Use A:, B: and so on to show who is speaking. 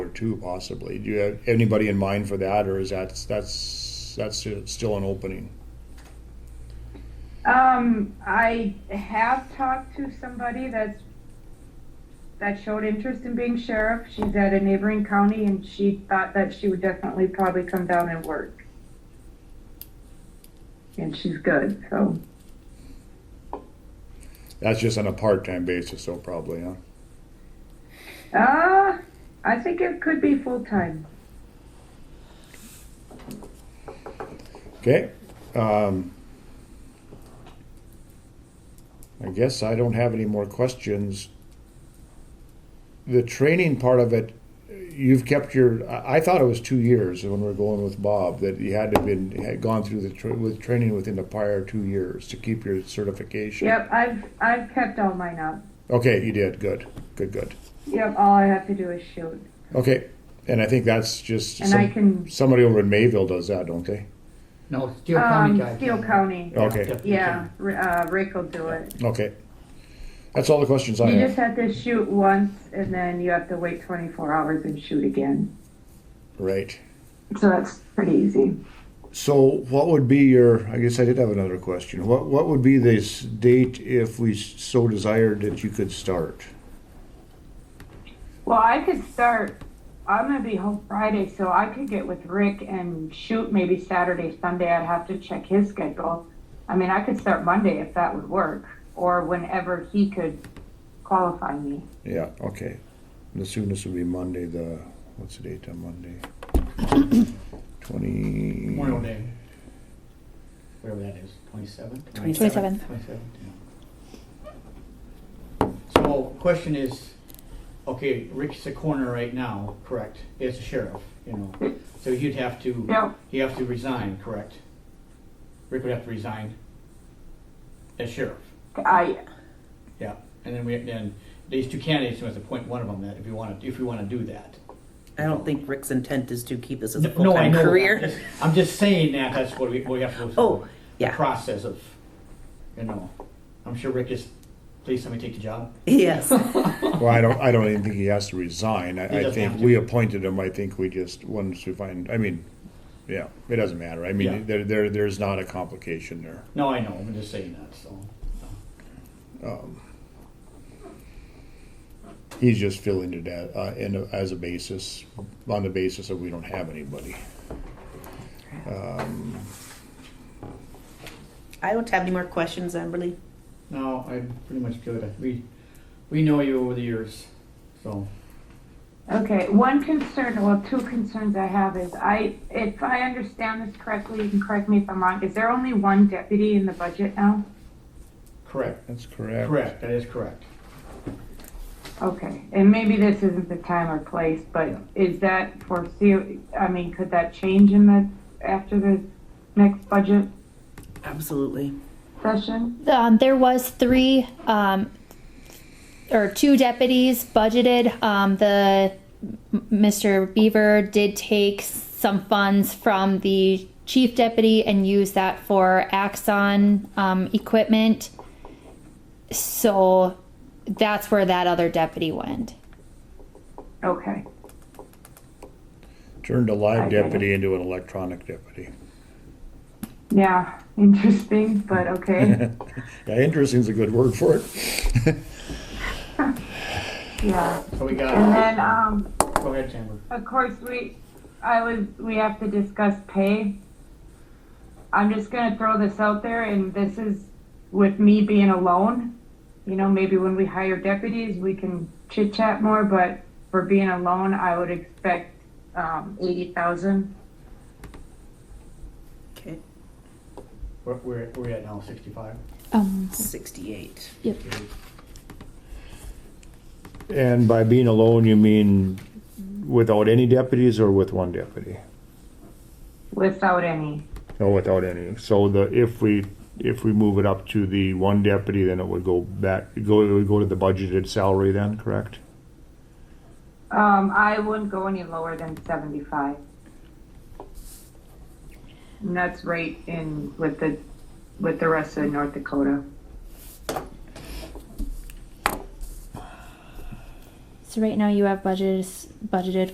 A: two possibly. Do you have anybody in mind for that, or is that, that's, that's still an opening?
B: Um, I have talked to somebody that's, that showed interest in being sheriff. She's at a neighboring county and she thought that she would definitely probably come down and work. And she's good, so,
A: That's just on a part-time basis, so probably, huh?
B: uh, I think it could be full-time.
A: Okay. Um, I guess I don't have any more questions. The training part of it, you've kept your. I I thought it was two years when we were going with Bob that you had to have been had gone through the tra- with training within the prior two years to keep your certification.
B: Yep, I've, I've kept all mine up.
A: Okay, you did good, good, good.
B: Yep, all I have to do is shoot.
A: Okay, and I think that's just
B: And I can-
A: somebody over in Mayville does that, don't they?
C: No, Steele County
B: Um,
C: guy.
B: Steele County,
C: Oh,
A: Okay,
B: yeah, R- uh, Rick will do it.
A: okay. That's all the questions I
B: You
A: have.
B: just have to shoot once and then you have to wait twenty-four hours and shoot again.
A: Right.
B: So that's pretty easy.
A: So what would be your, I guess I did have another question. What, what would be this date if we so desired that you could start?
B: Well, I could start, I'm gonna be home Friday, so I could get with Rick and shoot maybe Saturday, Sunday. I'd have to check his schedule. I mean, I could start Monday if that would work, or whenever he could qualify me.
A: Yeah, okay. The soonest would be Monday, the, what's the date on Monday? Twenty.
C: Memorial Day. Whatever that is, twenty-seventh?
D: 27th.
C: Twenty-seventh, yeah. So, question is, okay, Rick's a coroner right now, correct? It's a sheriff, you know, so you'd have to,
B: No,
C: you have to resign, correct? Rick would have to resign as sheriff,
B: I,
C: yeah. And then we, then these two candidates, we have to appoint one of them that if you want to, if we want to do that.
E: I don't think Rick's intent is to keep this as a
C: No, no, I
E: full-time
C: know that.
E: career.
C: I'm just saying that that's what we, we have to go through.
E: Oh,
C: the
E: yeah.
C: Process of, you know, I'm sure Rick is, please let me take the job.
E: Yes.
A: Well, I don't, I don't even think he has to resign.
C: He
A: I, I
C: doesn't
A: think
C: have to.
A: we appointed him. I think we just, once we find, I mean, yeah, it doesn't matter. I
C: Yeah.
A: mean, there, there, there's not a complication there.
C: No, I know, I'm just saying that, so.
A: He's just filling it at, uh, in, a- as a basis, on the basis that we don't have anybody.
E: I don't have any more questions, Emberly.
C: No, I'm pretty much good. We, we know you over the years, so.
B: Okay, one concern, well, two concerns I have is I, if I understand this correctly, you can correct me if I'm wrong, is there only one deputy in the budget now?
C: Correct,
A: That's correct.
C: correct, that is correct.
B: Okay, and maybe this isn't the time or place, but is that foresee, I mean, could that change in the, after the next budget
E: Absolutely.
B: session?
D: Um, there was three um, or two deputies budgeted. Um, the M- Mr. Beaver did take some funds from the chief deputy and use that for Axon um, equipment. So that's where that other deputy went.
B: Okay,
A: Turned a live
B: Okay.
A: deputy into an electronic deputy.
B: yeah, interesting, but okay,
A: yeah, interesting is a good word for it.
B: yeah.
C: So we
B: And
C: got,
B: then, um,
C: go ahead, Amber.
B: Of course, we, I was, we have to discuss pay. I'm just gonna throw this out there, and this is with me being alone. You know, maybe when we hire deputies, we can chit chat more, but for being alone, I would expect, um, eighty thousand.
E: Okay.
C: Where, where, where we at now, sixty-five?
D: Um,
E: 68.
A: and by being alone, you mean without any deputies or with one deputy?
B: Without any,
A: No, without any. So the if we if we move it up to the one deputy, then it would go back. Go it would go to the budgeted salary then, correct?
B: um, I wouldn't go any lower than seventy-five. And that's right in with the, with the rest of North Dakota.
D: so right now you have budgeted budgeted